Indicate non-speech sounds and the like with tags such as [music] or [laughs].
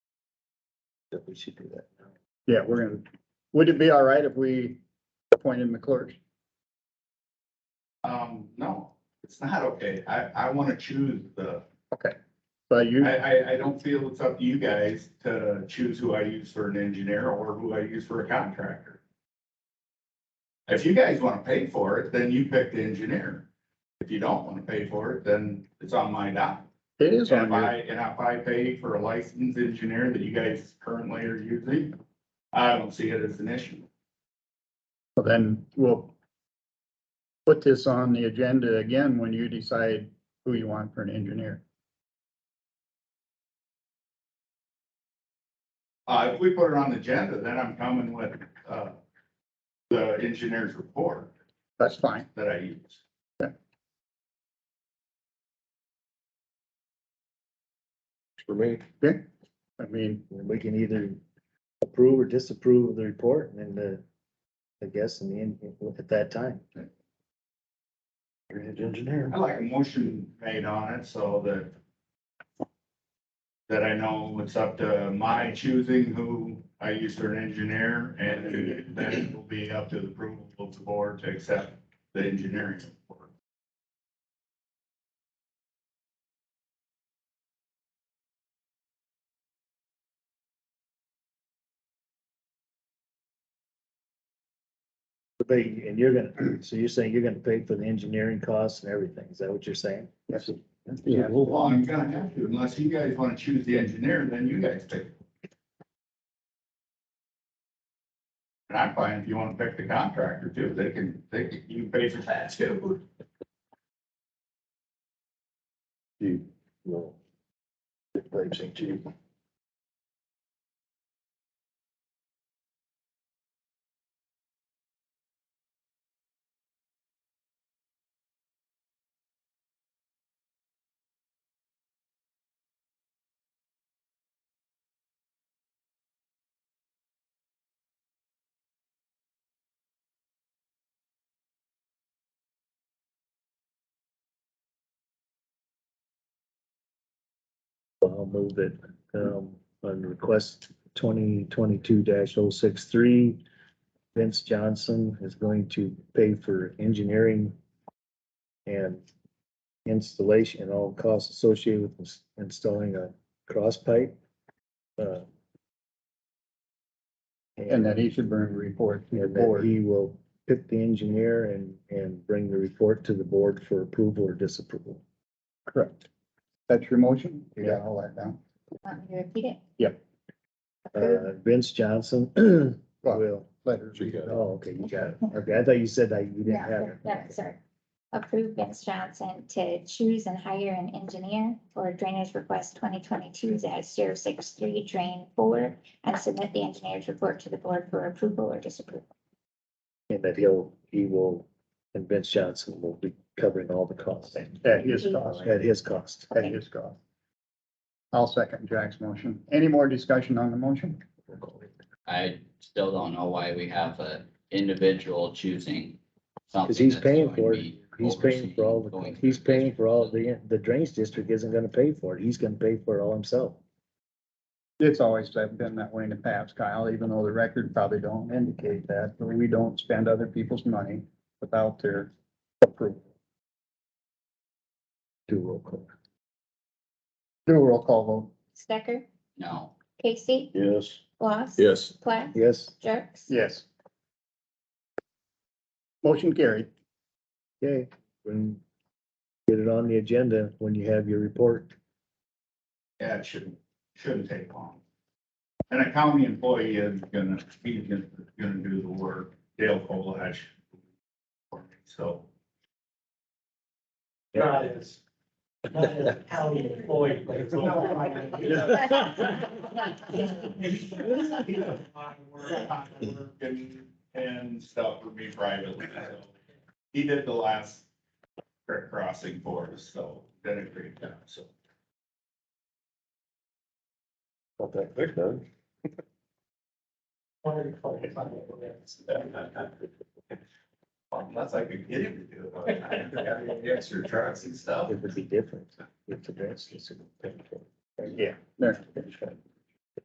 that we should do that. Yeah, we're gonna, would it be all right if we appointed McClure? Um, no, it's not okay. I, I wanna choose the, But you, I, I, I don't feel it's up to you guys to choose who I use for an engineer or who I use for a contractor. If you guys wanna pay for it, then you pick the engineer. If you don't wanna pay for it, then it's on my dime. it is And on if I, you. and if I pay for a licensed engineer that you guys currently are using, I don't see it as an issue. Well, Then we'll put this on the agenda again when you decide who you want for an engineer. Uh, if we put it on the agenda, then I'm coming with, uh, the engineer's report. That's fine. that I use. For me, I mean, We can either approve or disapprove of the report and then the, I guess, in the end, look at that time. Drainage engineer. I like a motion made on it so that that I know it's up to my choosing who I use for an engineer and then it will be up to the approval of the board to accept the engineering report. But you- and you're gonna, [clears throat] so you're saying you're gonna pay for the engineering costs and everything, is that what you're saying? Yes. Yeah. Well, I'm gonna have to, unless you guys want to choose the engineer, then you guys pick. And I'm fine if you want to pick the contractor too, they can, they can, you pay for that too. you know. the Claims thing to you. Well, I'll move it, um, on request twenty twenty-two 63 Vince Johnson is going to pay for engineering and installation and all costs associated with ins- installing a cross pipe. uh, and that he should bring a report to the and that board. he will pick the engineer and, and bring the report to the board for approval or disapproval. Correct. That's your motion? You got all that down? Want me to repeat it? Yep. Approve Uh, Vince Johnson Well, will letters. So you got it. Oh, okay, you got it. Okay, I thought you said that you didn't Yeah, have that- that's sorry. Approve Vince Johnson to choose and hire an engineer for drainage request twenty twenty-two 63 drain four and submit the engineer's report to the board for approval or disapproval. it, and that he'll, he will, and Vince Johnson will be covering all the costs At his cost, at his cost. at his cost. I'll second Jack's motion. Any more discussion on the motion? I still don't know why we have a individual choosing something. Because he's that's paying going to for it. be He's paying for all overseen, the, going he's through paying for all the, the drains district isn't gonna pay for it. He's gonna pay for it all himself. It's always been that way in the past, Kyle, even though the record probably don't indicate that, but we don't spend other people's money without their approval. Do roll call. Do a roll call vote. Stecker, No, Casey, Yes. Lost. Yes. [laughs] Plath, Yes, Jerks. Yes. Motion carried. okay. When, get it on the agenda when you have your [laughs] report. Yeah, it shouldn't, shouldn't take long. And a county employee is gonna, he's gonna, gonna do the work, Dale Colash. for me, So, Not as, not as a county employee, [laughs] but it's. and, and stuff for me privately, so. He did the last creek crossing for us, so, did a great job, so. Not that quick, though. Unless I could get him to do it, I got the extra trucks and stuff. It would be different if the drains district. paid for it. Yeah. There.